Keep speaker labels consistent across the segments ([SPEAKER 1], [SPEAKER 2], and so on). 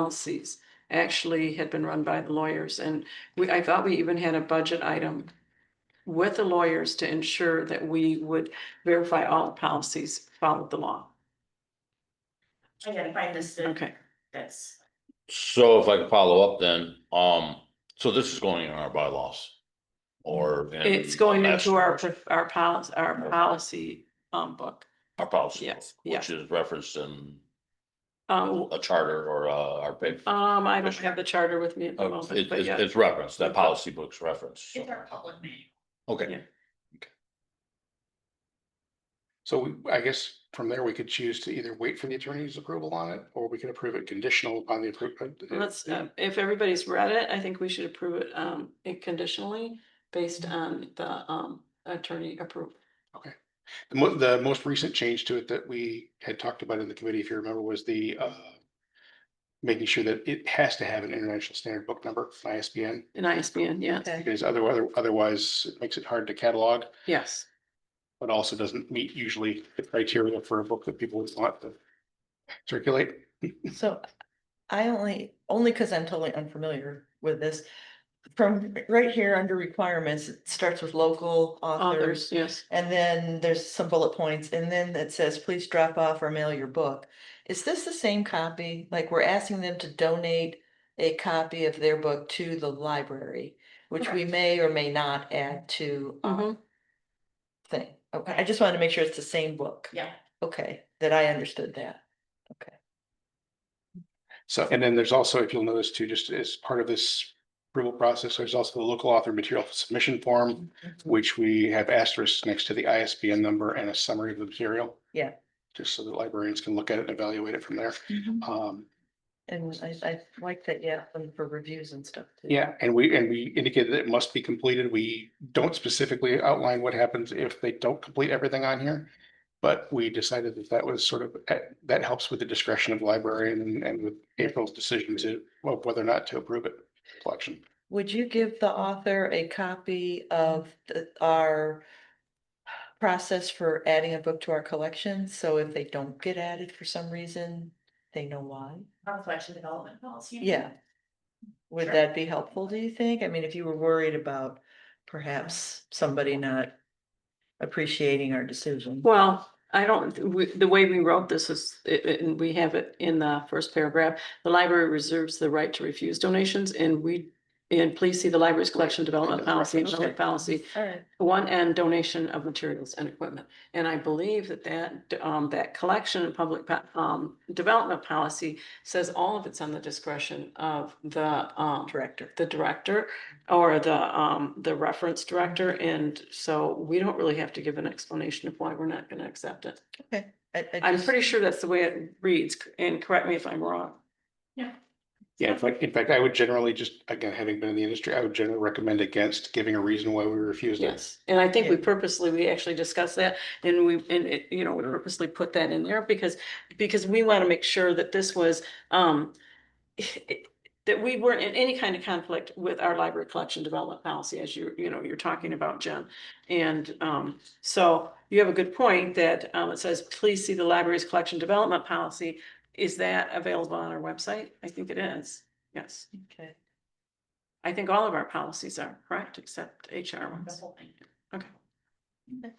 [SPEAKER 1] policies actually had been run by the lawyers. And we, I thought we even had a budget item with the lawyers to ensure that we would verify all policies followed the law.
[SPEAKER 2] I gotta find this, uh,
[SPEAKER 1] Okay,
[SPEAKER 2] that's,
[SPEAKER 3] So if I could follow up then, um, so this is going in our bylaws? Or? in
[SPEAKER 1] it's going into our,
[SPEAKER 3] master-
[SPEAKER 1] our policy, our policy um book.
[SPEAKER 3] Our policy,
[SPEAKER 1] Yes, yeah.
[SPEAKER 3] which is referenced in
[SPEAKER 1] Um,
[SPEAKER 3] a charter or uh, our paper.
[SPEAKER 1] um, I don't have the charter with me at the
[SPEAKER 3] Uh,
[SPEAKER 1] moment,
[SPEAKER 3] It,
[SPEAKER 1] but
[SPEAKER 3] it's,
[SPEAKER 1] yeah,
[SPEAKER 3] it's referenced, that
[SPEAKER 1] Okay.
[SPEAKER 3] policy book's referenced. so-
[SPEAKER 2] it's our public manual.
[SPEAKER 3] Okay,
[SPEAKER 1] Yeah.
[SPEAKER 4] So we, I guess from there, we could choose to either wait for the attorney's approval on it, or we could approve it conditional upon the approval.
[SPEAKER 1] let's, uh, if everybody's read it, I think we should approve it um conditionally based on the um attorney approval.
[SPEAKER 4] The mo- the most recent change to it that we had talked about in the committee, if you remember, was the uh. Making sure that it has to have an international standard book number, ISBN,
[SPEAKER 1] An ISBN, yes,
[SPEAKER 4] because otherwise, otherwise it makes it hard to catalog.
[SPEAKER 1] yes.
[SPEAKER 4] But also doesn't meet usually the criteria for a book that people would want to circulate.
[SPEAKER 5] So I only, only because I'm totally unfamiliar with this. From right here under requirements, it starts with local
[SPEAKER 1] Others,
[SPEAKER 5] authors.
[SPEAKER 1] yes.
[SPEAKER 5] And then there's some bullet points and then it says, please drop off or mail your book. Is this the same copy? Like we're asking them to donate a copy of their book to the library, which we
[SPEAKER 2] Correct. Mm-hmm.
[SPEAKER 5] may or may not add to um,
[SPEAKER 1] Mhm.
[SPEAKER 5] thing. Okay, I just wanted to make sure it's the same book.
[SPEAKER 2] Yeah,
[SPEAKER 5] Okay, that I understood that.
[SPEAKER 4] So, and then there's also, if you'll notice too, just as part of this approval process, there's also the local author material submission form, which we have asterisks next to the ISBN number and a summary of the material.
[SPEAKER 5] Yeah.
[SPEAKER 4] Just so that librarians can look at it and evaluate it from there.
[SPEAKER 2] Mm-hmm.
[SPEAKER 4] Um,
[SPEAKER 5] And I, I like that, yeah, and for reviews and stuff. too.
[SPEAKER 4] yeah, and we, and we indicated that it must be completed. We don't specifically outline what happens if they don't complete everything on here. But we decided that that was sort of, eh, that helps with the discretion of librarian and- and with April's decision to, well, whether or not to approve it, collection.
[SPEAKER 5] Would you give the author a copy of the, our process for adding a book to our collection? So if they don't get added for some reason, they know why?
[SPEAKER 2] our collection development policy.
[SPEAKER 5] Yeah. Would
[SPEAKER 2] Sure.
[SPEAKER 5] that be helpful, do you think? I mean, if you were worried about perhaps somebody not appreciating our decision.
[SPEAKER 1] Well, I don't, we- the way we wrote this is, it- it- and we have it in the first paragraph, the library reserves the right to refuse donations and we, and please see the library's collection development policy and public
[SPEAKER 5] Okay.
[SPEAKER 1] policy,
[SPEAKER 5] All right.
[SPEAKER 1] one and donation of materials and equipment. And I believe that that, um, that collection and public, po- um, development policy says all of it's on the discretion of the, um,
[SPEAKER 5] Director.
[SPEAKER 1] the director or the, um, the reference director. And so we don't really have to give an explanation of why we're not gonna accept it.
[SPEAKER 5] Okay. I- I
[SPEAKER 1] I'm
[SPEAKER 5] just-
[SPEAKER 1] pretty sure that's the way it reads, and correct me if I'm wrong.
[SPEAKER 4] Yeah, in fact, in fact, I would generally just, again, having been in the industry, I would generally recommend against giving a reason why we refused it.
[SPEAKER 1] Yes, and I think we purposely, we actually discussed that, and we, and it, you know, we purposely put that in there because, because we want to make sure that this was, um, that we weren't in any kind of conflict with our library collection development policy, as you, you know, you're talking about, Jen. And, um, so you have a good point that, um, it says, please see the library's collection development policy. Is that available on our website? I think it is, yes.
[SPEAKER 5] Okay.
[SPEAKER 1] I think all of our policies are correct, except HR
[SPEAKER 2] The
[SPEAKER 1] ones.
[SPEAKER 2] whole thing.
[SPEAKER 1] Okay.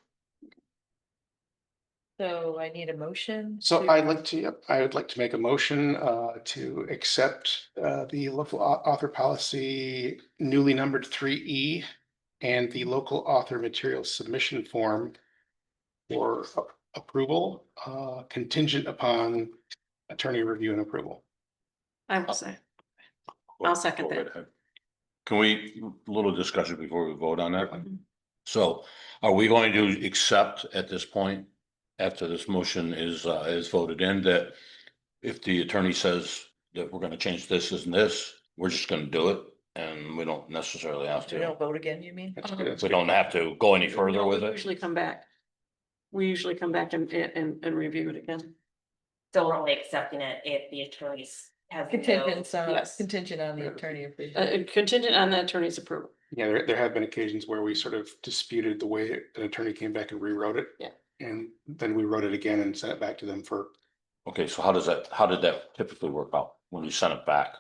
[SPEAKER 5] So I need a motion.
[SPEAKER 4] So
[SPEAKER 5] to-
[SPEAKER 4] I'd like to, yep, I would like to make a motion uh to accept uh the local au- author policy newly numbered three E. And the local author material submission form. For a- approval uh contingent upon attorney review and approval.
[SPEAKER 1] I will say. I'll second
[SPEAKER 3] that. Can we, a little discussion before we vote on that?
[SPEAKER 1] Mhm.
[SPEAKER 3] So are we going to accept at this point, after this motion is, uh, is voted in, that if the attorney says that we're gonna change this and this, we're just gonna do it and we don't necessarily have
[SPEAKER 5] We don't
[SPEAKER 3] to,
[SPEAKER 5] vote again, you mean?
[SPEAKER 4] That's
[SPEAKER 1] Uh-huh.
[SPEAKER 4] good. That's
[SPEAKER 3] we
[SPEAKER 4] good.
[SPEAKER 3] don't have to go any further
[SPEAKER 1] No, we
[SPEAKER 3] with it?
[SPEAKER 1] Usually come back. We usually come back and, and, and review it again.
[SPEAKER 2] So we're only accepting it if the attorneys has. no-
[SPEAKER 5] Contingent on,
[SPEAKER 1] Yes.
[SPEAKER 5] contingent on the
[SPEAKER 4] Yeah.
[SPEAKER 5] attorney.
[SPEAKER 1] Uh,
[SPEAKER 5] approval.
[SPEAKER 1] Uh, contingent on the attorney's approval.
[SPEAKER 4] Yeah, there, there have been occasions where we sort of disputed the way an attorney came back and rewrote it.
[SPEAKER 1] Yeah.
[SPEAKER 4] And then we wrote it again and sent it back to them for,
[SPEAKER 3] Okay, so how does that, how did that typically work out? when you send it back.